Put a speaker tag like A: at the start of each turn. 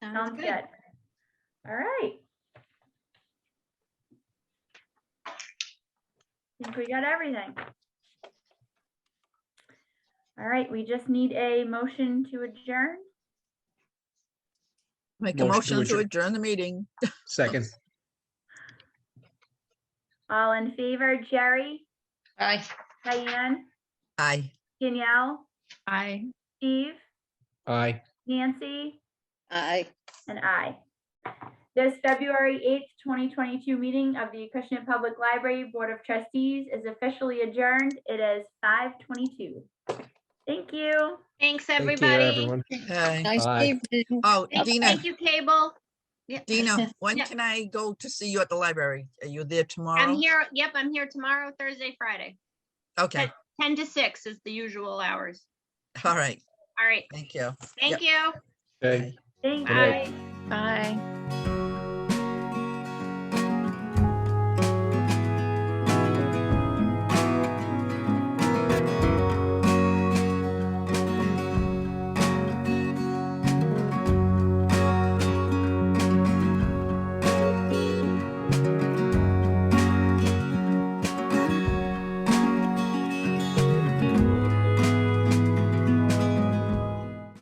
A: Sounds
B: good.
A: good. All right. Think we got everything. All right, we just need a motion to adjourn.
C: Make a
D: Motion to
C: motion to
D: adjourn.
C: adjourn the meeting.
D: Second,
A: All in favor, Jerry,
B: Aye.
A: Diane,
C: Aye.
A: Danielle,
B: Aye.
A: Steve,
D: aye.
A: Nancy,
B: Aye.
A: and I. This February 8th, 2022 meeting of the Acushnet Public Library Board of Trustees is officially adjourned. It is 5:22. Thank you.
E: Thanks,
D: Thank you,
E: everybody.
D: everyone.
C: Aye.
B: Nice
D: Aye.
B: evening.
C: Oh,
E: Thank
C: Dina,
E: thank you, Cable. Yep.
C: Dina, when
E: Yeah.
C: can I go to see you at the library? Are you there
E: I'm
C: tomorrow?
E: here, yep, I'm here tomorrow, Thursday, Friday.
C: Okay,
E: 10 to 6 is the usual hours.
C: all right,
E: All right,
C: thank you.
E: thank you.
D: Okay.
C: Bye.
A: Thank
D: Good night.
A: you.
E: Bye.
B: Bye.